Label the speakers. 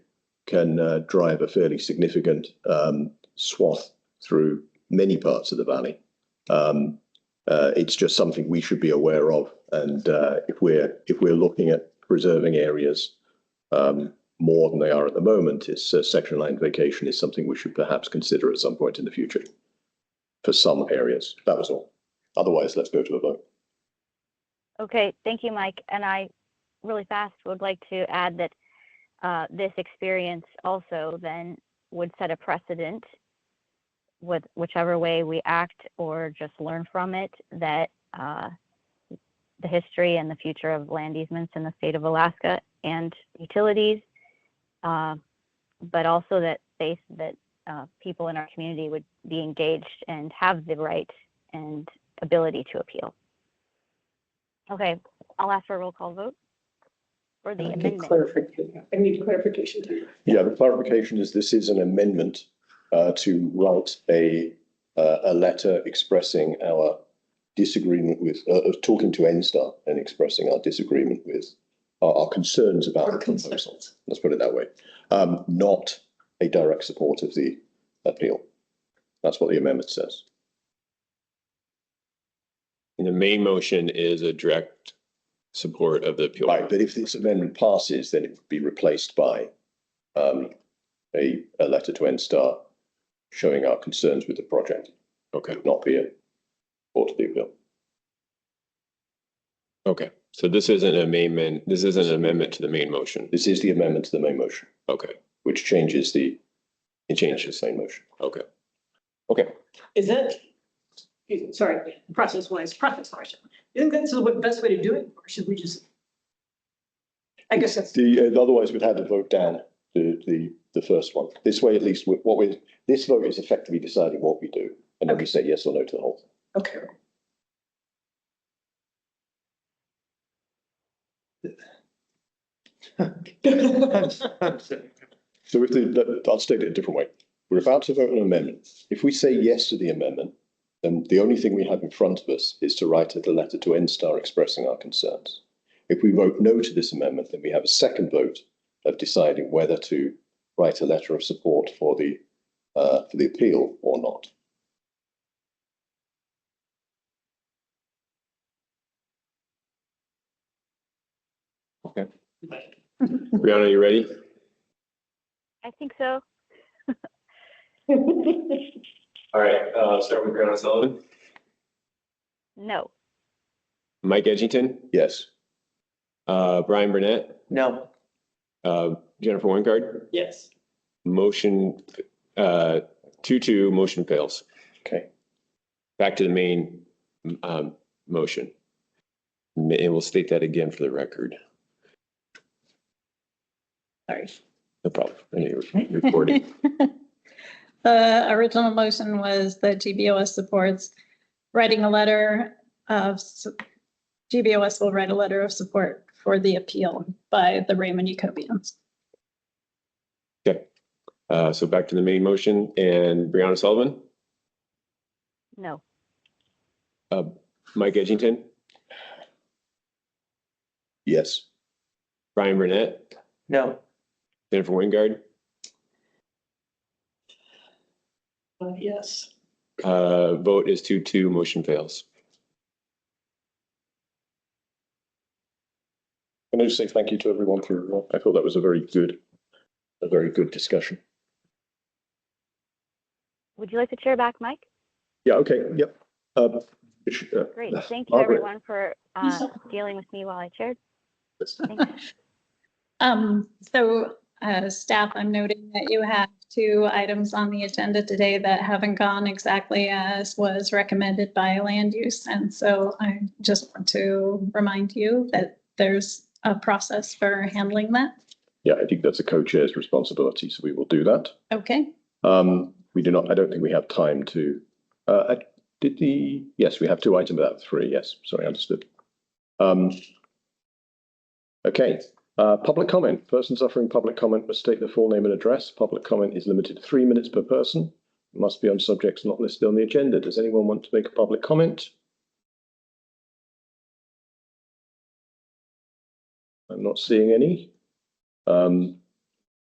Speaker 1: can uh, drive a fairly significant um, swath through many parts of the valley. Um, uh, it's just something we should be aware of, and uh, if we're if we're looking at preserving areas um, more than they are at the moment, is uh, section line vacation is something we should perhaps consider at some point in the future for some areas. That was all. Otherwise, let's go to a vote.
Speaker 2: Okay, thank you, Mike. And I really fast would like to add that uh, this experience also then would set a precedent with whichever way we act or just learn from it that uh, the history and the future of land easements in the state of Alaska and utilities, uh, but also that they that uh, people in our community would be engaged and have the right and ability to appeal. Okay, I'll ask for a roll call vote for the
Speaker 3: I need
Speaker 2: amendment.
Speaker 3: clarification. I need clarification too.
Speaker 1: Yeah, the clarification is this is an amendment uh, to write a uh, a letter expressing our disagreement with uh, of talking to NSTAR and expressing our disagreement with our, our concerns about
Speaker 3: Or
Speaker 1: the proposal.
Speaker 3: consent.
Speaker 1: Let's put it that way. Um, not a direct support of the appeal. That's what the amendment says.
Speaker 4: And the main motion is a direct support of the appeal.
Speaker 1: Right, but if this amendment passes, then it would be replaced by um, a a letter to NSTAR showing our concerns with the project.
Speaker 4: Okay,
Speaker 1: not be a or to the appeal.
Speaker 4: okay. So this isn't an amendment, this isn't an amendment to the main motion.
Speaker 1: This is the amendment to the main motion,
Speaker 4: Okay,
Speaker 1: which changes the,
Speaker 4: it
Speaker 1: it changes
Speaker 4: changes.
Speaker 1: the main motion.
Speaker 4: Okay.
Speaker 3: Is that, excuse me, sorry, process wise, process question. Isn't this the best way to do it? Or should we just? I guess that's,
Speaker 1: The, uh, otherwise we'd have to vote down the, the, the first one. This way at least, we- what we, this vote is effectively deciding what we do. And then we say yes or no to the whole. thing.
Speaker 3: okay.
Speaker 1: So if the, let- I'll state it a different way. We're about to vote on an amendment. If we say yes to the amendment, then the only thing we have in front of us is to write a letter to NSTAR expressing our concerns. If we vote no to this amendment, then we have a second vote of deciding whether to write a letter of support for the, uh, for the appeal or not.
Speaker 4: Brianna, you ready?
Speaker 2: I think so.
Speaker 4: All right, uh, start with Brianna Sullivan.
Speaker 2: No.
Speaker 4: Mike Edgington,
Speaker 1: Yes.
Speaker 4: uh, Brian Burnett,
Speaker 3: No.
Speaker 4: uh, Jennifer Wingard,
Speaker 3: Yes.
Speaker 4: motion, uh, two, two, motion fails.
Speaker 1: Okay.
Speaker 4: Back to the main, um, motion. Ma- And we'll state that again for the record.
Speaker 5: Sorry.
Speaker 4: No problem. I knew you were recording.
Speaker 5: The original motion was that GBOS supports writing a letter of, su- GBOS will write a letter of support for the appeal by the Raymond Ucobians.
Speaker 4: Uh, so back to the main motion and Brianna Sullivan,
Speaker 2: No.
Speaker 4: Mike Edgington,
Speaker 1: Yes.
Speaker 4: Brian Burnett,
Speaker 3: No.
Speaker 4: Jennifer Wingard,
Speaker 3: Yes.
Speaker 4: uh, vote is two, two, motion fails.
Speaker 1: Can I just say thank you to everyone for, I thought that was a very good, a very good discussion.
Speaker 2: Would you like to chair back, Mike?
Speaker 1: Yeah, okay, yep. Um, sh- uh,
Speaker 2: Great. Thank you,
Speaker 1: Margaret.
Speaker 2: everyone, for uh, dealing with me while I chaired. Thanks.
Speaker 5: Um, so, uh, staff, I'm noting that you have two items on the agenda today that haven't gone exactly as was recommended by land use. And so I just want to remind you that there's a process for handling that.
Speaker 1: Yeah, I think that's a co-chair's responsibility, so we will do that.
Speaker 5: Okay.
Speaker 1: Um, we do not, I don't think we have time to, uh, I- did the, yes, we have two items out of three, yes, sorry, understood. Um, okay, uh, public comment, persons offering public comment must state their full name and address. Public comment is limited to three minutes per person. It Must be on subjects not listed on the agenda. Does anyone want to make a public comment? I'm not seeing any. Um,